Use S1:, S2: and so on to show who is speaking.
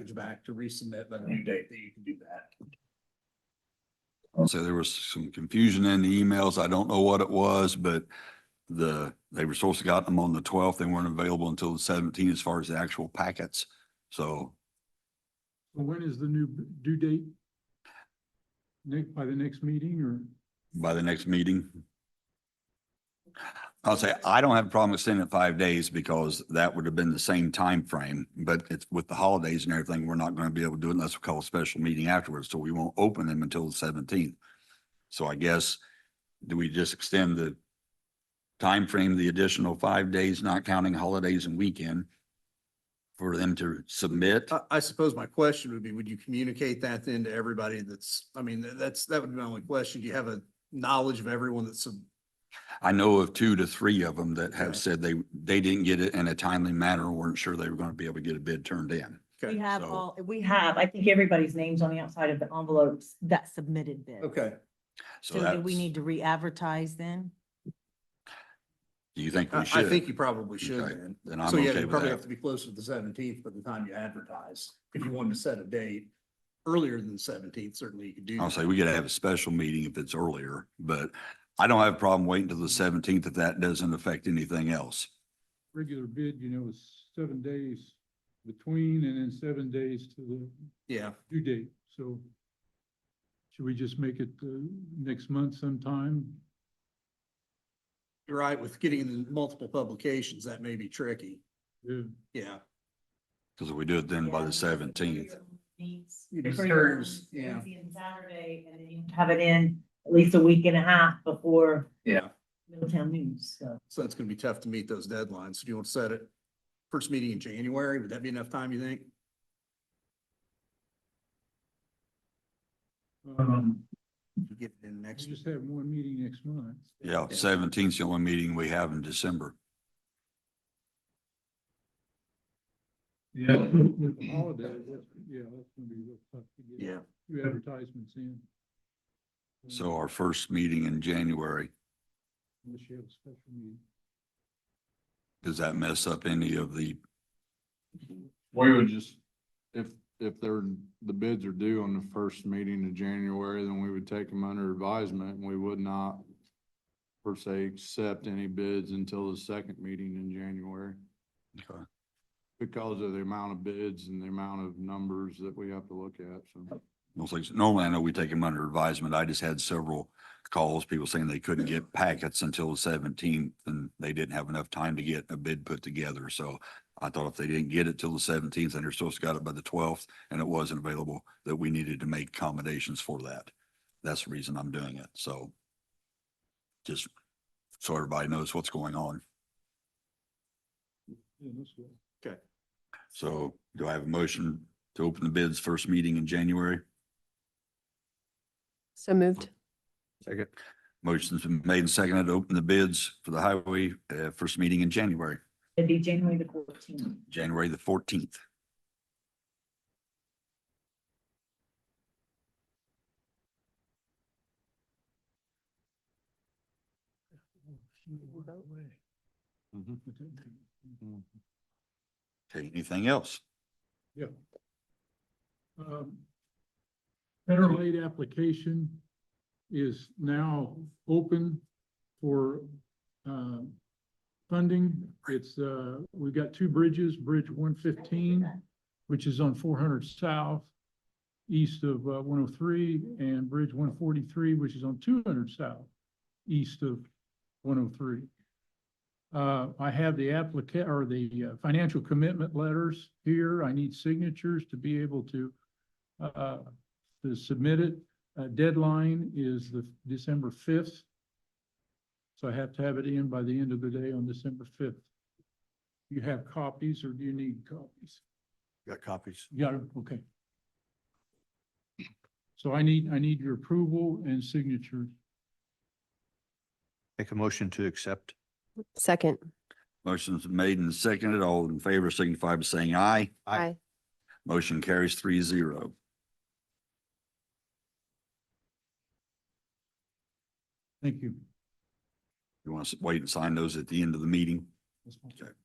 S1: language back to resubmit the new date that you can do that.
S2: So there was some confusion in the emails. I don't know what it was, but the, they were supposed to got them on the twelfth. They weren't available until the seventeenth as far as the actual packets. So
S3: Well, When is the new b- due date? Nick, by the next meeting or?
S2: by the next meeting. I'll say, I don't have a problem with sending it five days because that would have been the same time frame. But it's with the holidays and everything, we're not going to be able to do it unless we call a special meeting afterwards. So we won't open them until the seventeenth. So I guess, do we just extend the time frame, the additional five days, not counting holidays and weekend for them to submit?
S1: I, I suppose my question would be, would you communicate that then to everybody that's, I mean, tha- that's, that would be my only question. Do you have a knowledge of everyone that's, sub-
S2: I know of two to three of them that
S1: Okay.
S2: have said they, they didn't get it in a timely manner, or weren't sure they were going to be able to get a bid turned in.
S4: We
S1: okay,
S4: have
S2: so-
S4: all, we have, I think everybody's names on the outside of the envelopes that submitted bid.
S1: okay.
S4: So
S2: So
S4: do
S2: that's,
S4: we need
S2: do
S4: to re-advertise then?
S2: you think
S1: I,
S2: we
S1: I
S2: should?
S1: think you probably should
S2: Okay,
S1: then.
S2: Then I'm
S1: So yeah,
S2: okay
S1: you
S2: with
S1: probably have
S2: that.
S1: to be closer to the seventeenth by the time you advertise. If you wanted to set a date earlier than the seventeenth, certainly you could do.
S2: I'll
S1: that.
S2: say we gotta have a special meeting if it's earlier, but I don't have a problem waiting till the seventeenth if that doesn't affect anything else.
S3: regular bid, you know, is seven days between and then seven days to the
S1: Yeah,
S3: due date, so should we just make it uh, next month sometime?
S1: you're right. With getting in multiple publications, that may be tricky.
S3: Yeah,
S1: Yeah.
S2: Cause if we do it then by the seventeenth,
S1: It
S4: For your
S1: serves, yeah.
S4: Wednesday and Saturday, and then you have it in at least a week and a half before
S1: Yeah.
S4: Middletown News, so.
S1: So it's gonna be tough to meet those deadlines. So Do you want to set it first meeting in January? Would that be enough time, you think?
S3: um,
S1: To Get it in
S3: we
S1: next.
S3: just have one meeting next month.
S2: yeah, seventeenth's the only meeting we have in December.
S3: Yeah. With the holiday, that's, yeah, that's gonna be real tough to get
S1: Yeah,
S3: two advertisements in.
S2: So our first meeting in January,
S3: Unless you have a special meeting.
S2: does that mess up any of the,
S5: We would just, if, if they're, the bids are due on the first meeting of January, then we would take them under advisement and we would not per se accept any bids until the second meeting in January
S2: okay,
S5: because of the amount of bids and the amount of numbers that we have to look at, so.
S2: most likes, normally I know we take them under advisement. I just had several calls, people saying they couldn't get packets until the seventeenth and they didn't have enough time to get a bid put together. So I thought if they didn't get it till the seventeenth and they're supposed to got it by the twelfth and it wasn't available, that we needed to make accommodations for that. That's the reason I'm doing it. So just so everybody knows what's going on.
S3: Yeah, that's what.
S2: So do I have a motion to open the bids first meeting in January?
S6: So moved.
S2: Second. Motion's been made and seconded to open the bids for the highway, uh, first meeting in January,
S4: It'd be January the fourteenth.
S2: January the fourteenth. Mm-hmm, Okay, anything else?
S3: Yeah. Um, Better Late application is now open for um, funding. It's, uh, we've got two bridges, Bridge one fifteen, which is on four hundred south, east of one oh three, and Bridge one forty-three, which is on two hundred south, east of one oh three. Uh, I have the applicant, or the uh, financial commitment letters here. I need signatures to be able to, uh, to submit it. Uh, deadline is the December fifth. So I have to have it in by the end of the day on December fifth. You have copies or do you need copies?
S2: Got copies.
S3: Yeah, okay. So I need, I need your approval and signatures.
S7: Make a motion to accept.
S6: Second.
S2: Motion's been made and seconded. All in favor signify by saying aye.
S7: Aye.
S6: Aye.
S2: Motion carries three zero.
S3: Thank you.
S2: You want to wait and sign those at the end of the meeting?
S3: That's fine.
S2: Okay.